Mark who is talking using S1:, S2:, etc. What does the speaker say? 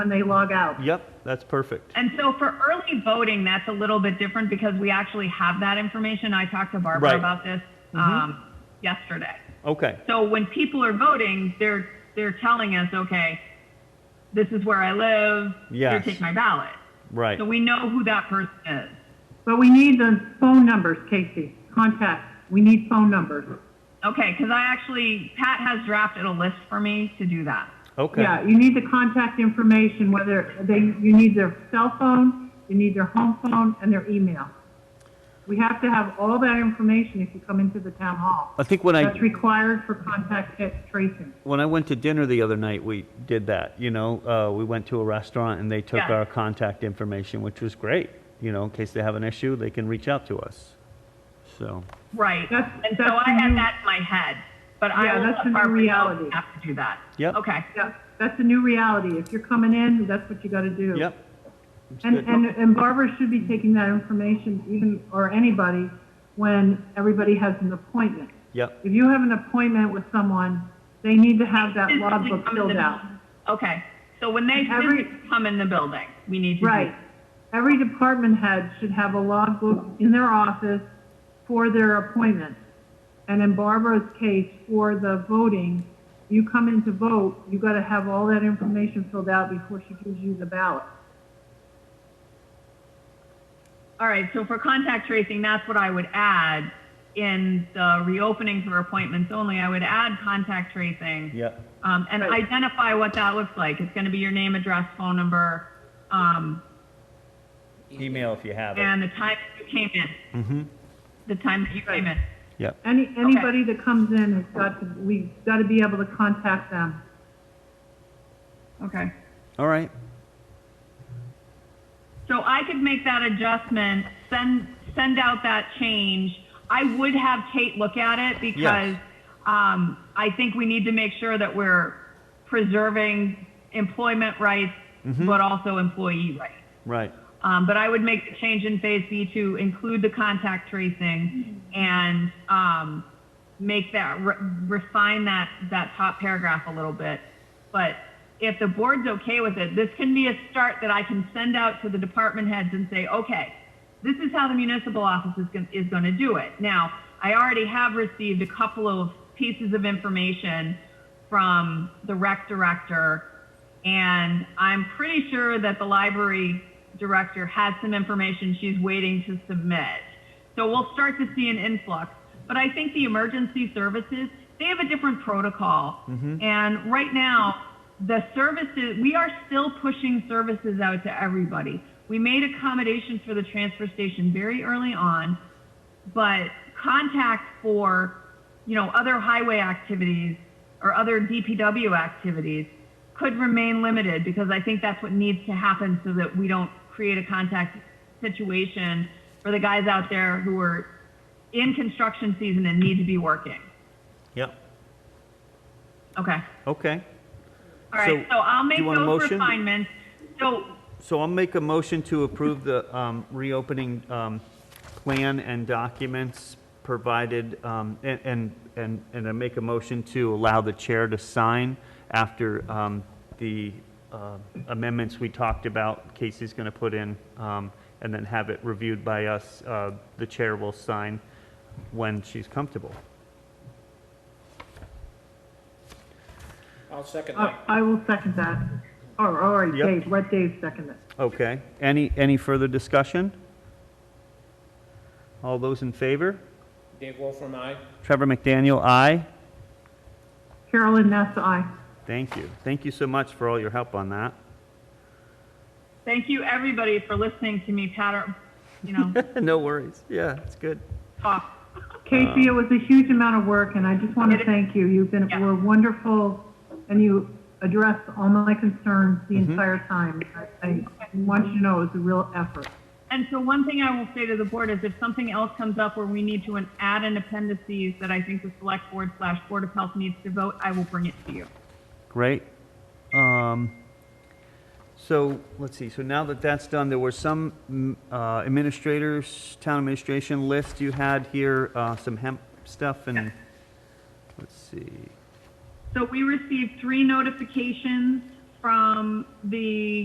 S1: when they log out.
S2: Yep, that's perfect.
S3: And so for early voting, that's a little bit different because we actually have that information. I talked to Barbara
S2: Right. Mm-hmm.
S3: about this um, yesterday.
S2: Okay,
S3: So when people are voting, they're they're telling us, okay, this is where I live. Here,
S2: Yes.
S3: take my ballot.
S2: right.
S3: So we know who that person is.
S1: But we need the phone numbers, Casey, contact, we need phone numbers.
S3: Okay, because I actually Pat has drafted a list for me to do that.
S2: Okay.
S1: Yeah, you need the contact information, whether they, you need their cell phone, you need their home phone, and their email. We have to have all that information if you come into the town hall.
S2: I think when I-
S1: That's required for contact tra- tracing.
S2: When I went to dinner the other night, we did that. You know, uh, we went to a restaurant and they took
S3: Yeah.
S2: our contact information, which was great. You know, in case they have an issue, they can reach out to us. So,
S3: Right.
S1: That's-
S3: and so
S1: that's
S3: I
S1: the
S3: had
S1: new-
S3: that in my head, but
S1: Yeah,
S3: I will
S1: that's
S3: let
S1: the new
S3: Barbara know
S1: reality.
S3: we have to do that.
S2: Yep.
S3: Okay.
S1: Yeah, that's a new reality. If you're coming in, that's what you gotta do.
S2: yep.
S1: And,
S2: good.
S1: and, and Barbara should be taking that information even, or anybody, when everybody has an appointment.
S2: Yep.
S1: If you have an appointment with someone, they need to have that
S3: physically
S1: logbook
S3: come in
S1: filled
S3: the-
S1: out.
S3: Okay, so when they
S1: Every-
S3: physically come in the building, we need to. do-
S1: Right. Every department head should have a logbook in their office for their appointment. And in Barbara's case, for the voting, you come in to vote, you gotta have all that information filled out before she gives you the ballot.
S3: All right, so for contact tracing, that's what I would add. In the reopening for appointments only, I would add contact tracing.
S2: Yep.
S3: Um, and
S1: Right.
S3: identify what that looks like. It's gonna be your name, address, phone number, um,
S2: Email if you have it.
S3: and the time that you came in. The time that you came in.
S2: Yep.
S1: Any, anybody that comes in has got to, we've gotta be able to contact them.
S3: Okay.
S2: All right.
S3: So I could make that adjustment, send, send out that change. I would have Kate look at it because,
S2: Yes.
S3: um, I think we need to make sure that we're preserving employment rights, but also employee rights.
S2: Right.
S3: Um, but I would make the change in phase B to include the contact tracing and, um, make that, re- refine that, that top paragraph a little bit. But if the board's okay with it, this can be a start that I can send out to the department heads and say, okay, this is how the municipal office is going, is going to do it. Now, I already have received a couple of pieces of information from the rec director, and I'm pretty sure that the library director has some information she's waiting to submit. So we'll start to see an influx. But I think the emergency services, they have a different protocol. And right now, the services, we are still pushing services out to everybody. We made accommodations for the transfer station very early on, but contact for, you know, other highway activities or other DPW activities could remain limited because I think that's what needs to happen so that we don't create a contact situation for the guys out there who are in construction season and need to be working.
S2: Yep.
S3: Okay.
S2: Okay.
S3: All right.
S2: So,
S3: So, I'll
S2: do
S3: make
S2: you want a
S3: those
S2: motion?
S3: refinements. So,
S2: So I'll make a motion to approve the um, reopening um, plan and documents provided, um, and, and, and and I make a motion to allow the chair to sign after um, the uh, amendments we talked about, Casey's going to put in, um, and then have it reviewed by us. Uh, The chair will sign when she's comfortable.
S4: I'll second
S1: I,
S4: that.
S1: I will second that. Or, all right,
S2: Yep.
S1: Dave, let Dave second it.
S2: Okay. Any, any further discussion? All those in favor?
S4: Dave Wolfram, aye.
S2: Trevor McDaniel, aye.
S1: Carolyn Nessa, aye.
S2: Thank you. Thank you so much for all your help on that.
S3: thank you everybody for listening to me patter, you know,
S2: no worries. Yeah, it's good.
S3: talk.
S1: Casey, it was a huge amount of work, and I just want to
S3: It-
S1: thank you. You've been,
S3: Yeah.
S1: were wonderful, and you addressed all my concerns the entire time. I, I want you to know it was a real effort.
S3: And so one thing I will say to the board is if something else comes up where we need to an- add an appendices that I think the select board slash board of health needs to vote, I will bring it to you.
S2: Great. Um, so let's see. So now that that's done, there were some mm, uh, administrators, town administration list you had here, uh, some hemp stuff, and let's see.
S3: So we received three notifications from the